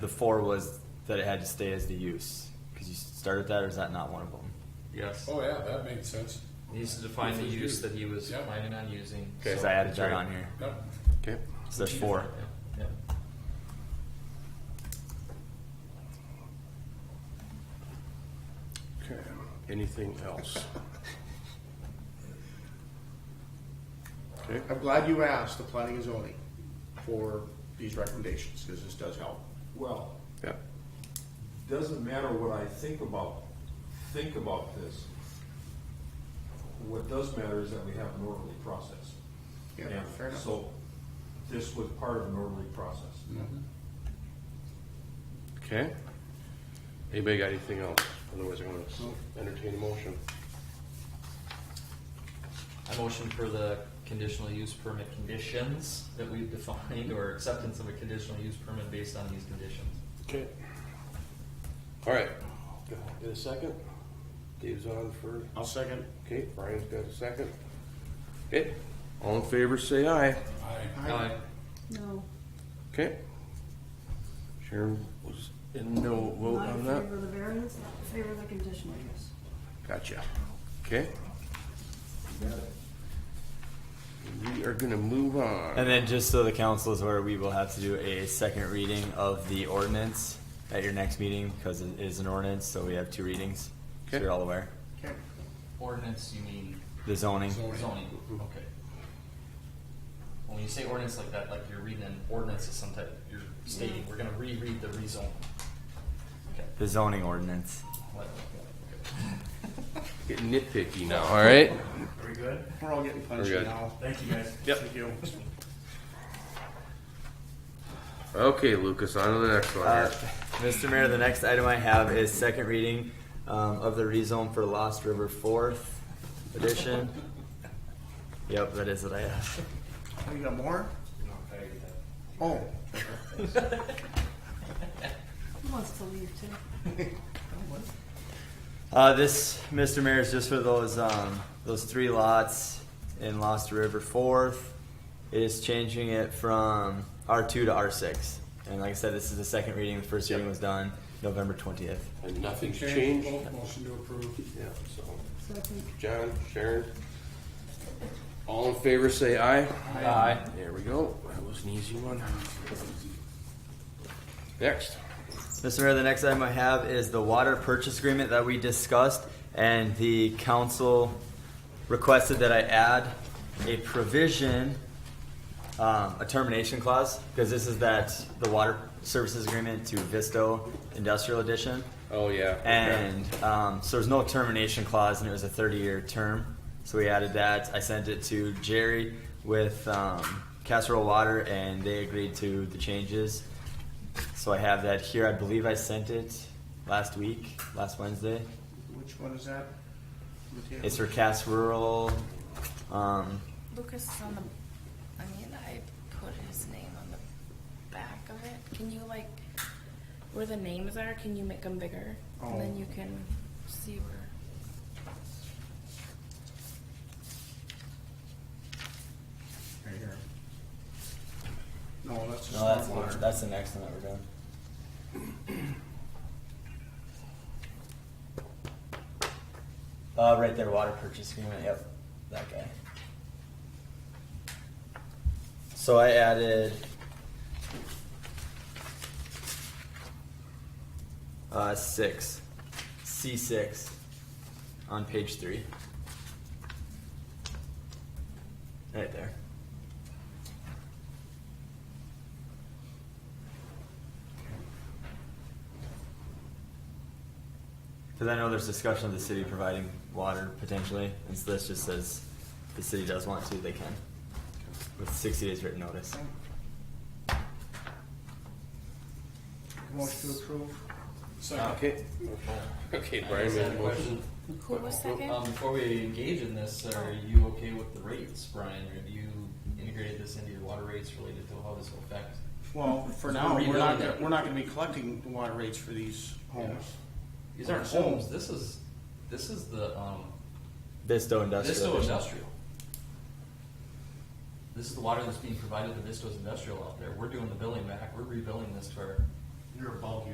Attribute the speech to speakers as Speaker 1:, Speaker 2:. Speaker 1: The four was that it had to stay as the use, because you started that, or is that not one of them?
Speaker 2: Yes.
Speaker 3: Oh, yeah, that made sense.
Speaker 2: Needs to define the use that he was
Speaker 3: Yeah.
Speaker 2: planning on using.
Speaker 3: Okay.
Speaker 1: Because
Speaker 2: So-
Speaker 1: I added that on here,
Speaker 3: Yep.
Speaker 4: Okay.
Speaker 1: so there's four.
Speaker 2: Yeah.
Speaker 4: Okay. Anything else? Okay.
Speaker 5: I'm glad you asked the planning and zoning for these recommendations, because this does help.
Speaker 6: Well,
Speaker 4: Yeah.
Speaker 6: doesn't matter what I think about, think about this. What does matter is that we have an orderly process.
Speaker 5: Yeah, fair
Speaker 6: And
Speaker 5: enough.
Speaker 6: so this was part of an orderly process.
Speaker 4: Okay. Anybody got anything else? Otherwise, I'm going to entertain a motion.
Speaker 2: I motion for the conditional use permit conditions that we've defined, or acceptance of a conditional use permit based on these conditions.
Speaker 4: Okay. All right. In a second. Dave's on for.
Speaker 5: I'll second.
Speaker 4: Okay. Brian's got a second. Okay. All in favor, say aye.
Speaker 3: I,
Speaker 2: Aye.
Speaker 7: No,
Speaker 4: Okay. Sharon was in no vote
Speaker 7: not in
Speaker 4: on that.
Speaker 7: favor of the variance, not in favor of the conditional use.
Speaker 4: Gotcha. Okay. We are gonna move on.
Speaker 1: And then just so the council is aware, we will have to do a second reading of the ordinance at your next meeting, because it is an ordinance, so we have two readings. So
Speaker 4: Okay.
Speaker 1: you're all aware.
Speaker 5: Okay.
Speaker 2: Ordinance, you mean
Speaker 1: The zoning,
Speaker 2: zoning, okay. When you say ordinance like that, like you're reading an ordinance of some type, you're stating, we're gonna reread the rezone. Okay.
Speaker 1: the zoning ordinance.
Speaker 2: what-
Speaker 4: Get nitpicky now, all right?
Speaker 5: Are we good? We're all getting punchy
Speaker 4: good.
Speaker 5: now. Thank you, guys.
Speaker 4: Yep.
Speaker 5: Thank you.
Speaker 4: Okay, Lucas, on to the next one
Speaker 1: Uh,
Speaker 4: here.
Speaker 1: Mr. Mayor, the next item I have is second reading um, of the rezone for Lost River Fourth Edition. Yep, that is what I have.
Speaker 5: Oh, You got more? Oh,
Speaker 7: Who wants to leave too?
Speaker 1: Uh, this, Mr. Mayor, is just for those, um, those three lots in Lost River Fourth. It is changing it from R two to R six. And like I said, this is the second reading. The first reading was done November twentieth.
Speaker 4: And nothing's
Speaker 3: change,
Speaker 4: changed.
Speaker 3: vote, motion to approve.
Speaker 4: Yeah, so,
Speaker 7: Second.
Speaker 4: John, Sharon. All in favor, say aye. Aye. There we go. That was an easy one. Next.
Speaker 1: Mr. Mayor, the next item I have is the water purchase agreement that we discussed, and the council requested that I add a provision, um, a termination clause, because this is that, the water services agreement to Visto Industrial Edition.
Speaker 4: Oh, yeah. okay.
Speaker 1: And um, so there's no termination clause, and it was a 30-year term. So we added that. I sent it to Jerry with um, Casserole Water, and they agreed to the changes. So I have that here. I believe I sent it last week, last Wednesday.
Speaker 5: which one is that? Mateo?
Speaker 1: It's for Cass Rural. Um,
Speaker 8: Lucas is on the, I mean, I put his name on the back of it. Can you like, where the names are, can you make them bigger? And
Speaker 5: Oh.
Speaker 8: then you can see where.
Speaker 5: Right here. No, that's
Speaker 1: no, that's
Speaker 5: just water.
Speaker 1: that's the next one that we're doing. Uh, right there, water purchase agreement. Yep, that guy. So I added. Uh, six, C six, on page three. Right there. Because I know there's discussion of the city providing water potentially, and so this just says if the city does want to, they can. With sixty days written notice.
Speaker 5: Motion to approve?
Speaker 3: Second.
Speaker 4: Okay. Okay, Brian made a motion.
Speaker 8: Who was second?
Speaker 2: Um, before we engage in this, are you okay with the rates, Brian? Have you integrated this into your water rates related to how this will affect?
Speaker 5: Well, for
Speaker 2: We're
Speaker 5: now, we're not,
Speaker 2: rebuilding
Speaker 5: gonna-
Speaker 2: it.
Speaker 5: we're not gonna be collecting the water rates for these homes.
Speaker 2: These aren't
Speaker 5: Home.
Speaker 2: homes, this is, this is the, um,
Speaker 1: Visto industrial.
Speaker 2: Visto Industrial. This is the water that's being provided to Visto's Industrial out there. We're doing the billing back, we're rebilling this to our